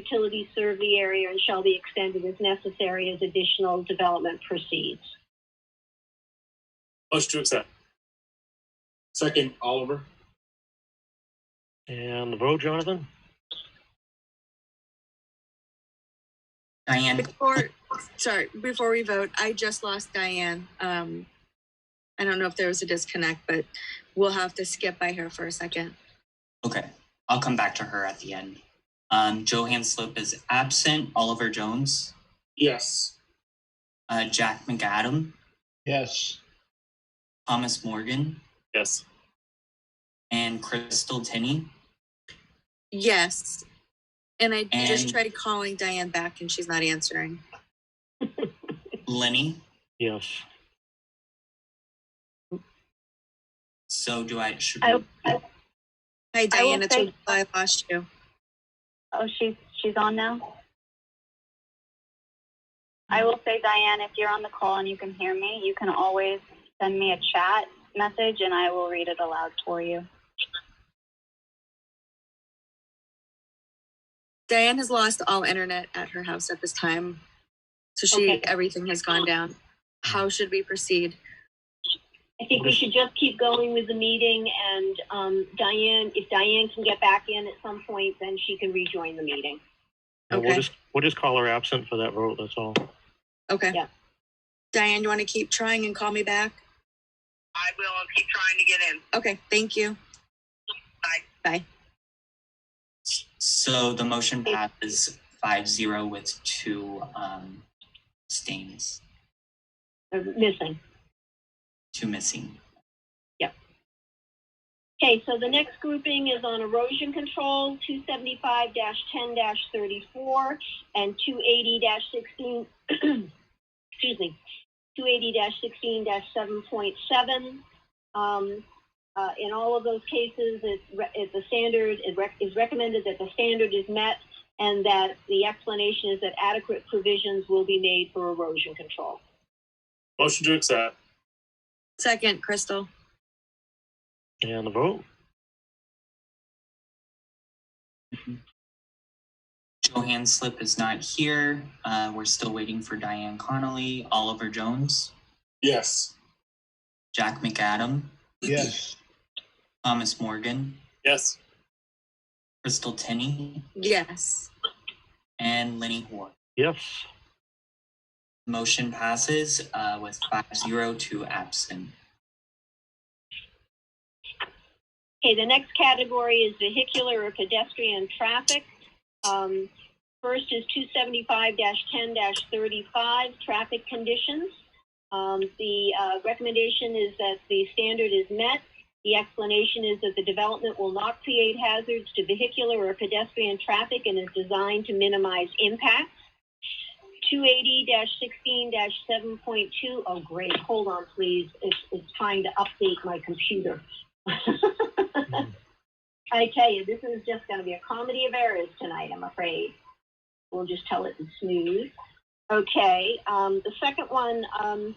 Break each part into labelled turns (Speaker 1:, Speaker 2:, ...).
Speaker 1: utilities serve the area and shall be extended as necessary as additional development proceeds.
Speaker 2: Motion to accept. Second, Oliver.
Speaker 3: And the vote, Jonathan?
Speaker 4: Diane,
Speaker 5: Before, sorry, before we vote, I just lost Diane. Um, I don't know if there was a disconnect, but we'll have to skip by her for a second.
Speaker 4: okay, I'll come back to her at the end. Um, Johan Slope is absent, Oliver Jones,
Speaker 2: Yes.
Speaker 4: uh, Jack McAdam,
Speaker 3: Yes.
Speaker 4: Thomas Morgan,
Speaker 2: Yes.
Speaker 4: and Crystal Tenney.
Speaker 5: Yes. And I just
Speaker 4: And-
Speaker 5: tried calling Diane back and she's not answering.
Speaker 4: Lenny,
Speaker 3: Yes.
Speaker 4: so do I, should
Speaker 1: I-
Speaker 4: we-
Speaker 5: Hi,
Speaker 1: I will
Speaker 5: Diane, it's
Speaker 1: say-
Speaker 5: I lost you.
Speaker 1: Oh, she's, she's on now? I will say, Diane, if you're on the call and you can hear me, you can always send me a chat message and I will read it aloud for you.
Speaker 5: Diane has lost all internet at her house at this time. So she,
Speaker 1: Okay.
Speaker 5: everything has gone down. How should we proceed?
Speaker 1: I think we should just keep going with the meeting and um, Diane, if Diane can get back in at some point, then she can rejoin the meeting.
Speaker 3: And we'll
Speaker 5: Okay.
Speaker 3: just, we'll just call her absent for that vote, that's all.
Speaker 5: Okay.
Speaker 1: Yeah.
Speaker 5: Diane, you want to keep trying and call me back?
Speaker 6: I will. I'll keep trying to get in.
Speaker 5: Okay, thank you.
Speaker 4: so the motion passes five zero with two, um, stains,
Speaker 1: They're Missing.
Speaker 4: two missing.
Speaker 1: Okay, so the next grouping is on erosion control, two seventy-five ten thirty-four and two eighty sixteen, excuse me, two eighty sixteen seven point seven. Um, uh, in all of those cases, it's, re- it's the standard, it rec- is recommended that the standard is met and that the explanation is that adequate provisions will be made for erosion control.
Speaker 2: Motion to accept.
Speaker 5: Second, Crystal.
Speaker 3: And the vote?
Speaker 4: Johan Slip is not here, uh, we're still waiting for Diane Connolly, Oliver Jones,
Speaker 2: Yes.
Speaker 4: Jack McAdam,
Speaker 3: Yes.
Speaker 4: Thomas Morgan,
Speaker 2: Yes.
Speaker 4: Crystal Tenney,
Speaker 5: Yes.
Speaker 4: and Lenny Hoare.
Speaker 3: Yes.
Speaker 4: Motion passes uh, with five zero to absent.
Speaker 1: Okay, the next category is vehicular or pedestrian traffic. Um, first is two seventy-five ten thirty-five, traffic conditions. Um, the, uh, recommendation is that the standard is met. The explanation is that the development will not create hazards to vehicular or pedestrian traffic and is designed to minimize impacts. Two eighty 16 7.2. Oh, great, hold on, please, it's, it's trying to update my computer. I tell you, this is just going to be a comedy of errors tonight, I'm afraid. We'll just tell it in smooth. Okay, um, the second one, um,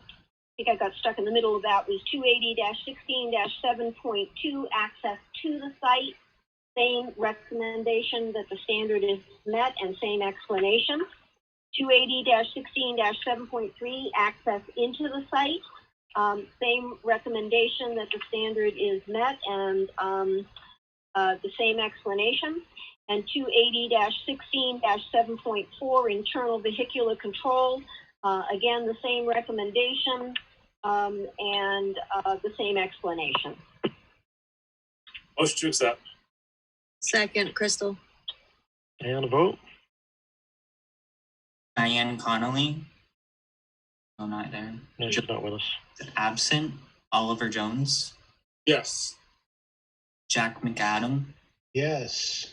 Speaker 1: I think I got stuck in the middle of that, was 280-16-7.2, access to the site. Same recommendation that the standard is met and same explanation. 280-16-7.3, access into the site. Um, same recommendation that the standard is met and, um, uh, the same explanation. And two eighty sixteen seven point four, internal vehicular control, uh, again, the same recommendation, um, and, uh, the same explanation.
Speaker 2: Motion to accept.
Speaker 5: Second, Crystal.
Speaker 3: And the vote?
Speaker 4: Diane Connolly? No, not there.
Speaker 3: No, she's not with us.
Speaker 4: Absent. Oliver Jones,
Speaker 2: Yes.
Speaker 4: Jack McAdam,
Speaker 3: Yes.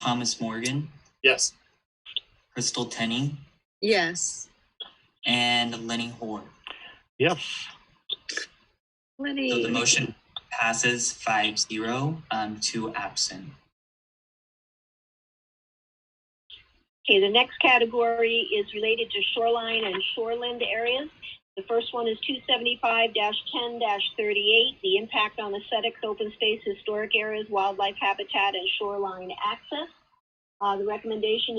Speaker 4: Thomas Morgan,
Speaker 2: Yes.
Speaker 4: Crystal Tenney,
Speaker 5: Yes.
Speaker 4: and Lenny Hoare.
Speaker 3: Yes.
Speaker 4: So the
Speaker 5: Lenny.
Speaker 4: motion passes five zero um, to absent.
Speaker 1: Okay, the next category is related to shoreline and shoreland areas. The first one is two seventy-five ten thirty-eight, the impact on aesthetics, open space, historic areas, wildlife habitat, and shoreline access. Uh, the recommendation